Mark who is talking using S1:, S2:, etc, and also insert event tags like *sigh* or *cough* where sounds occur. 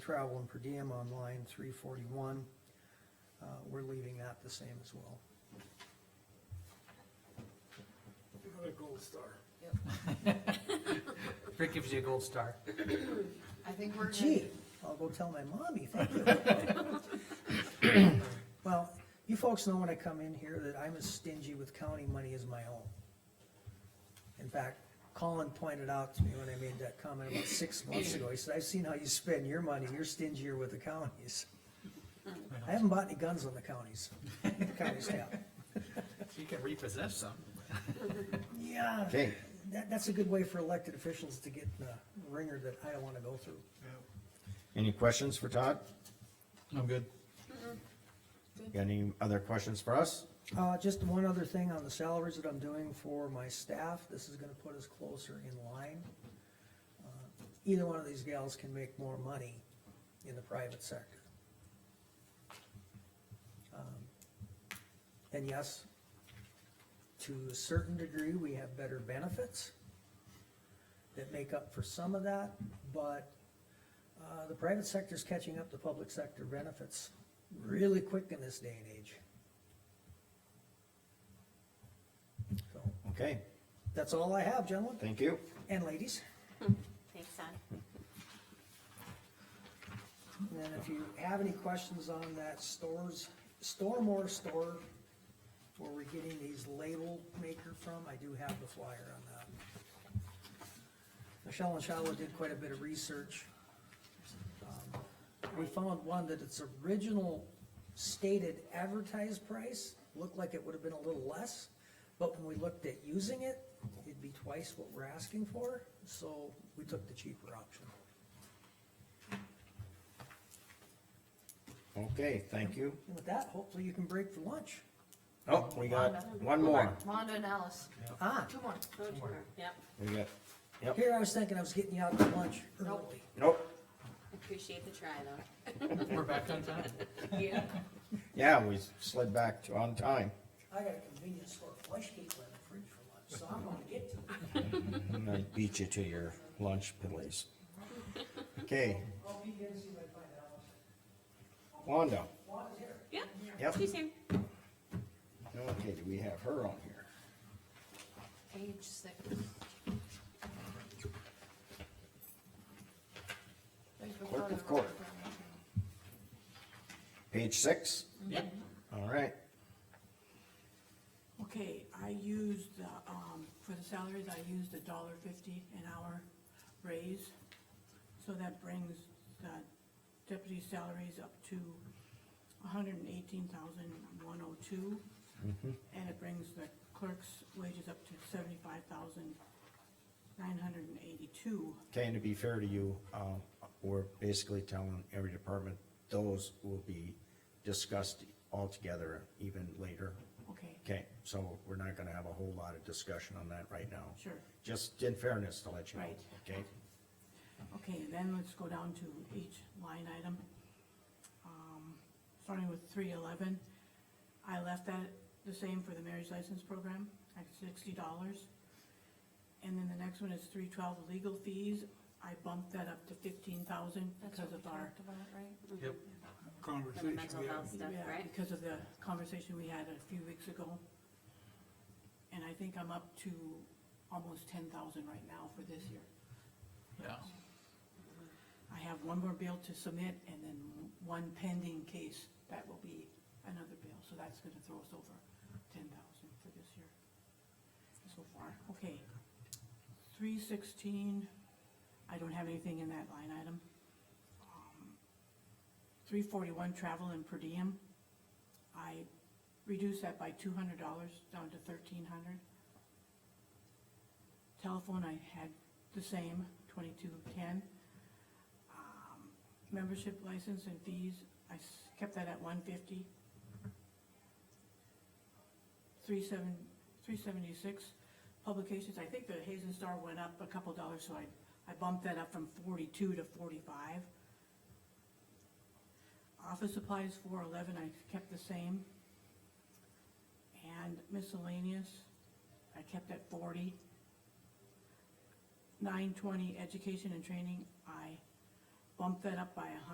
S1: travel and per diem on line three forty-one. Uh, we're leaving that the same as well.
S2: Another gold star.
S3: *laughs* Rick gives you a gold star.
S4: I think we're
S1: Gee,
S4: good.
S1: I'll go tell my mommy, thank you. *laughs* Well, you folks know when I come in here that I'm as stingy with county money as my own. In fact, Colin pointed out to me when I made that comment about six months ago, he said, I've seen how you spend your money, you're stingier with the counties. I haven't bought any guns on the counties, the counties have.
S3: You can repossess some.
S1: Yeah,
S5: Okay.
S1: that, that's a good way for elected officials to get the ringer that I don't wanna go through.
S5: Any questions for Todd?
S3: I'm good.
S5: Got any other questions for us?
S1: Uh, just one other thing on the salaries that I'm doing for my staff, this is gonna put us closer in line. Uh, Either one of these gals can make more money in the private sector. Um, And yes, to a certain degree, we have better benefits that make up for some of that, but, uh, the private sector's catching up to public sector benefits really quick in this day and age. So,
S5: Okay,
S1: that's all I have, gentlemen
S5: thank you.
S1: and ladies.
S6: Thanks, Todd.
S1: And then if you have any questions on that stores, store more store, where we're getting these label maker from, I do have the flyer on that. Michelle and Shala did quite a bit of research. Um, We found one that its original stated advertised price looked like it would have been a little less, but when we looked at using it, it'd be twice what we're asking for, so we took the cheaper option.
S5: Okay, thank you.
S1: And with that, hopefully you can break for lunch.
S5: Oh, we got one more.
S4: Mondo and Alice,
S1: Ah,
S4: two more.
S6: Yep,
S5: We got, yep,
S1: here I was thinking I was getting you out to lunch
S4: Nope.
S1: early.
S5: nope.
S6: appreciate the try
S4: *laughs*
S6: though.
S3: We're back on time.
S6: Yeah.
S5: Yeah, we slid back to on time.
S1: I got a convenience store flush cake in the fridge for lunch, so I'm gonna get to it.
S5: And I beat you to your lunch, please. Okay,
S1: I'll be here and see if I can find out.
S5: Wanda.
S1: Juan is here.
S6: Yep.
S5: Yep.
S6: She's here.
S5: Okay, do we have her on here?
S4: Page six.
S5: Clerk of Court. Page six?
S3: Yep.
S5: All right.
S7: Okay, I used, uh, um, for the salaries, I used a dollar fifty an hour raise. So that brings the deputy salaries up to a hundred and eighteen thousand one oh two. And it brings the clerk's wages up to seventy-five thousand nine hundred and eighty-two.
S5: Okay, and to be fair to you, um, we're basically telling every department, those will be discussed altogether even later.
S7: Okay,
S5: Okay, so we're not gonna have a whole lot of discussion on that right now.
S7: sure.
S5: Just in fairness to let you know,
S7: Right.
S5: okay?
S7: Okay, then let's go down to each line item. Um, Starting with three eleven, I left that the same for the marriage license program at sixty dollars. And then the next one is three twelve legal fees, I bumped that up to fifteen thousand because of our.
S3: Yep.
S6: For the
S2: Conversation
S6: mental
S2: we had.
S6: health stuff,
S7: yeah,
S6: right?
S7: Because of the conversation we had a few weeks ago. And I think I'm up to almost ten thousand right now for this year.
S3: Yeah.
S7: I have one more bill to submit and then one pending case that will be another bill, so that's gonna throw us over ten thousand for this year so far. Okay. Three sixteen, I don't have anything in that line item. Three forty-one, travel and per diem, I reduced that by two hundred dollars down to thirteen hundred. Telephone, I had the same, twenty-two ten Um, membership license and fees, I s- kept that at one fifty. Three seven, three seventy-six, publications, I think the Hazen Star went up a couple dollars, so I, I bumped that up from forty-two to forty-five. Office supplies, four eleven, I kept the same. And miscellaneous, I kept at forty. Nine twenty, education and training, I bumped that up by a hundred.